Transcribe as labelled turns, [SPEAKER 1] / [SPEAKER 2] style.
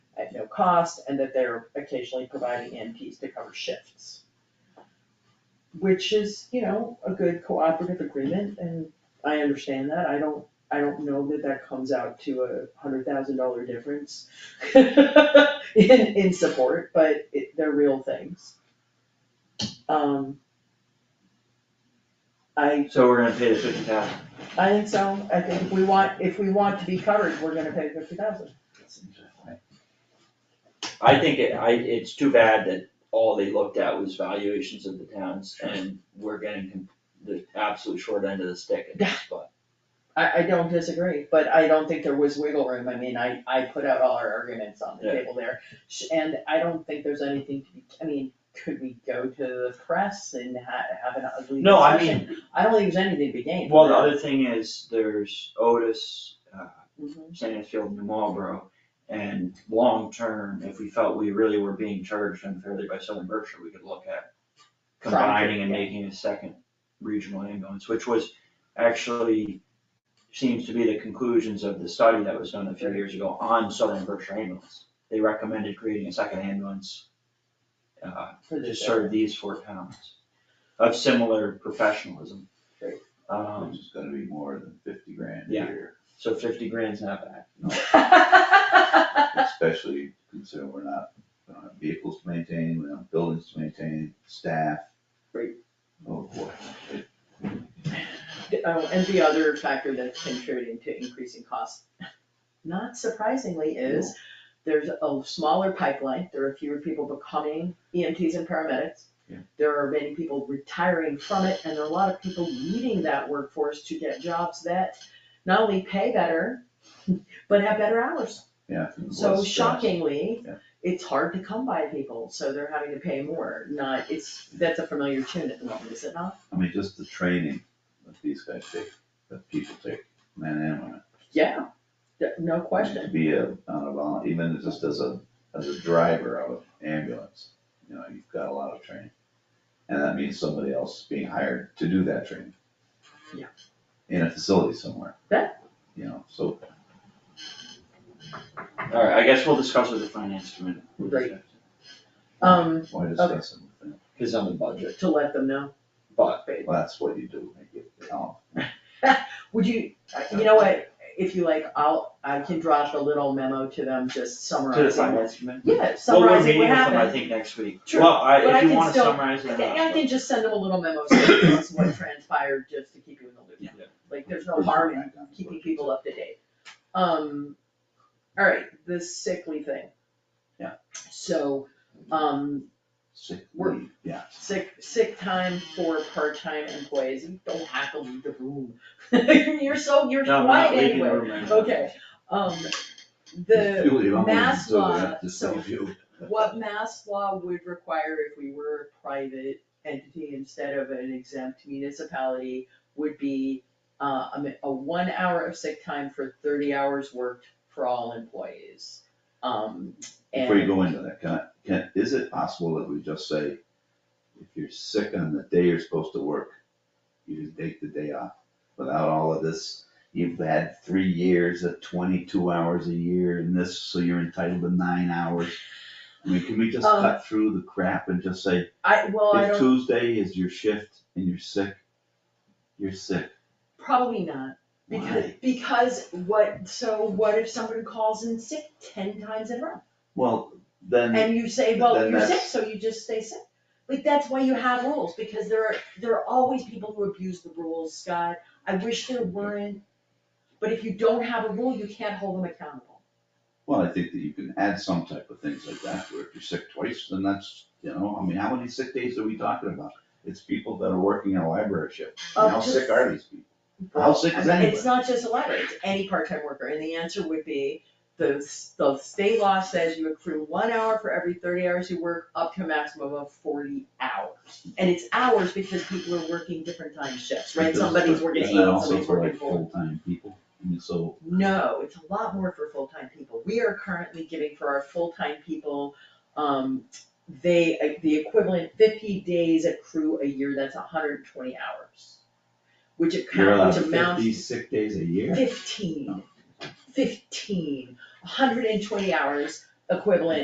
[SPEAKER 1] no cost and that they're occasionally providing NPs to cover shifts. Which is, you know, a good cooperative agreement and I understand that. I don't, I don't know that that comes out to a hundred thousand dollar difference in, in support, but it, they're real things. Um. I
[SPEAKER 2] So we're gonna pay the fifty thousand.
[SPEAKER 1] I think so, I think if we want, if we want to be covered, we're gonna pay fifty thousand.
[SPEAKER 2] I think it, I, it's too bad that all they looked at was valuations of the towns and we're getting com- the absolute short end of the stick at this spot.
[SPEAKER 1] I, I don't disagree, but I don't think there was wiggle room, I mean, I, I put out all our arguments on the
[SPEAKER 2] Yeah.
[SPEAKER 1] table there. Sh- And I don't think there's anything to be, I mean, could we go to the press and ha- have an ugly discussion?
[SPEAKER 2] No, I mean,
[SPEAKER 1] I don't think there's anything to be gained.
[SPEAKER 2] well, the other thing is there's Otis, uh,
[SPEAKER 1] Mhm.
[SPEAKER 2] Sandfield, New Marlboro. And long term, if we felt we really were being charged unfairly by Southern Berkshire, we could look at combining
[SPEAKER 1] Trying
[SPEAKER 2] and
[SPEAKER 1] to, yeah.
[SPEAKER 2] making a second regional ambulance, which was actually seems to be the conclusions of the study that was done a few years ago on Southern Berkshire ambulance. They recommended creating a second ambulance uh,
[SPEAKER 1] For
[SPEAKER 2] to
[SPEAKER 1] this
[SPEAKER 2] serve these four towns of similar professionalism.
[SPEAKER 1] Great.
[SPEAKER 2] Um,
[SPEAKER 3] Which is gonna be more than fifty grand a
[SPEAKER 2] Yeah.
[SPEAKER 3] year,
[SPEAKER 2] so fifty grand's not bad.
[SPEAKER 1] area.
[SPEAKER 3] especially considering we're not, we don't have vehicles to maintain, we don't have buildings to maintain, staff.
[SPEAKER 1] Right.
[SPEAKER 3] Oh, boy.
[SPEAKER 1] Oh, and the other factor that's contributing to increasing costs, not surprisingly, is there's a smaller pipeline, there are fewer people becoming EMTs and paramedics.
[SPEAKER 3] Yeah.
[SPEAKER 1] There are many people retiring from it, and there are a lot of people leaving that workforce to get jobs that not only pay better, but have better hours.
[SPEAKER 3] Yeah.
[SPEAKER 1] So
[SPEAKER 3] less stress.
[SPEAKER 1] shockingly,
[SPEAKER 3] Yeah.
[SPEAKER 1] it's hard to come by people, so they're having to pay more, not, it's, that's a familiar tune at the moment, is it not?
[SPEAKER 3] I mean, just the training that these guys take, that people take, man and women.
[SPEAKER 1] Yeah, th- no question.
[SPEAKER 3] To be a, on a vol, even just as a, as a driver of an ambulance, you know, you've got a lot of training. And that means somebody else being hired to do that training.
[SPEAKER 1] Yeah.
[SPEAKER 3] In a facility somewhere.
[SPEAKER 1] Yeah.
[SPEAKER 3] You know, so
[SPEAKER 2] Alright, I guess we'll discuss with the finance committee.
[SPEAKER 1] Great. Um,
[SPEAKER 3] why discuss it with them?
[SPEAKER 2] Cause on the budget,
[SPEAKER 1] to let them know,
[SPEAKER 2] but
[SPEAKER 3] Well, that's what you do, make it count.
[SPEAKER 1] would you, uh, you know what, if you like, I'll, I can drop a little memo to them, just
[SPEAKER 2] to
[SPEAKER 1] summarizing.
[SPEAKER 2] the finance committee.
[SPEAKER 1] Yeah,
[SPEAKER 2] Well, we're
[SPEAKER 1] summarizing
[SPEAKER 2] meeting
[SPEAKER 1] what
[SPEAKER 2] with them, I
[SPEAKER 1] happened,
[SPEAKER 2] think, next week.
[SPEAKER 1] Sure,
[SPEAKER 2] Well, I,
[SPEAKER 1] but I
[SPEAKER 2] if you
[SPEAKER 1] can
[SPEAKER 2] wanna
[SPEAKER 1] still-
[SPEAKER 2] summarize it
[SPEAKER 1] I
[SPEAKER 2] or
[SPEAKER 1] think,
[SPEAKER 2] not,
[SPEAKER 1] I can just send them a little memo, saying this is what transpired, just to keep you in the
[SPEAKER 2] Yeah.
[SPEAKER 1] loop. Like, there's no harm in keeping people up to date. Um, alright, the sickly thing.
[SPEAKER 3] Yeah.
[SPEAKER 1] So, um,
[SPEAKER 3] Sick
[SPEAKER 1] Work.
[SPEAKER 3] leave, yeah.
[SPEAKER 1] sick, sick time for part-time employees, you don't have to leave the room. You're so, you're
[SPEAKER 2] No, I'm not
[SPEAKER 1] quiet
[SPEAKER 2] leaving
[SPEAKER 1] anyway.
[SPEAKER 2] the room right now.
[SPEAKER 1] Okay, um, the
[SPEAKER 3] Julie, I'm
[SPEAKER 1] mass
[SPEAKER 3] waiting until
[SPEAKER 1] law,
[SPEAKER 3] we have to
[SPEAKER 1] so
[SPEAKER 3] save you.
[SPEAKER 1] what mass law would require if we were a private entity instead of an exempt municipality would be uh, a, mi- a one hour of sick time for thirty hours worked for all employees. Um, and.
[SPEAKER 3] Before you go into that, can I, can, is it possible that we just say, if you're sick on the day you're supposed to work, you just take the day off without all of this? You've had three years at twenty-two hours a year and this, so you're entitled to nine hours. I mean, can we just
[SPEAKER 1] Um,
[SPEAKER 3] cut through the crap and just say,
[SPEAKER 1] I, well, Oh, I
[SPEAKER 3] if
[SPEAKER 1] don't,
[SPEAKER 3] Tuesday is your shift and you're sick, you're sick.
[SPEAKER 1] probably not, because,
[SPEAKER 3] Why?
[SPEAKER 1] because what, so what if someone calls in sick ten times in a row?
[SPEAKER 3] Well, then.
[SPEAKER 1] And you say, well,
[SPEAKER 3] Then
[SPEAKER 1] you're sick,
[SPEAKER 3] that's-
[SPEAKER 1] so you just stay sick. Like, that's why you have rules, because there are, there are always people who abuse the rules, Scott. I wish there weren't. But if you don't have a rule, you can't hold them accountable.
[SPEAKER 3] Well, I think that you can add some type of things like that, where if you're sick twice, then that's, you know, I mean, how many sick days are we talking about? It's people that are working in a library shift,
[SPEAKER 1] Up
[SPEAKER 3] and how
[SPEAKER 1] to-
[SPEAKER 3] sick are these people? How sick
[SPEAKER 1] I
[SPEAKER 3] is
[SPEAKER 1] mean,
[SPEAKER 3] anybody?
[SPEAKER 1] it's not just a letter, it's any part-time worker, and the answer would be, the, s- the state law says you accrue one hour for every thirty hours you work, up to a maximum of forty hours. And it's hours because people are working different time shifts, right?
[SPEAKER 3] Because-
[SPEAKER 1] Somebody's working eight,
[SPEAKER 3] isn't that
[SPEAKER 1] somebody's working
[SPEAKER 3] also for
[SPEAKER 1] four.
[SPEAKER 3] like full-time people, I mean, so,
[SPEAKER 1] No, it's a lot more for full-time people. We are currently giving for our full-time people, um, they, the equivalent fifty days accrue a year, that's hundred and twenty hours. Which
[SPEAKER 3] you're allowed
[SPEAKER 1] account, which amounts
[SPEAKER 3] fifty sick days a year?
[SPEAKER 1] fifteen, fifteen, hundred and twenty hours equivalent